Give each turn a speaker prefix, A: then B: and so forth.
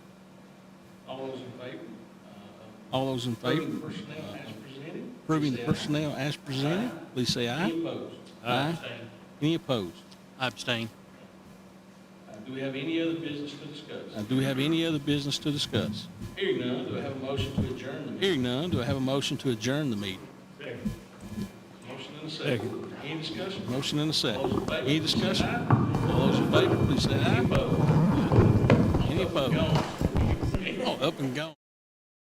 A: favor
B: All those in
A: of
B: favor
A: approving personnel as presented?
B: approving the
A: Say aye.
B: personnel as presented, please say aye.
A: Any opposed?
B: Aye.
A: Abstain.
B: Any opposed?
C: I abstain.
A: Uh, Do we have any other business to discuss?
B: Now, Uh, do we have any other business to discuss?
A: Hearing none, do I have a motion to adjourn the meeting?
B: Hearing none, do I have a motion to adjourn the meeting?
A: Motion and a second. Any discussion?
B: Motion and a
A: All those in
B: second.
A: favor,
B: Any
A: please say
B: discussion?
A: aye.
B: All those in favor, please say
A: Any
B: aye.
A: opposed?
B: Any opposed?
A: Gone.
B: Oh, Up and gone.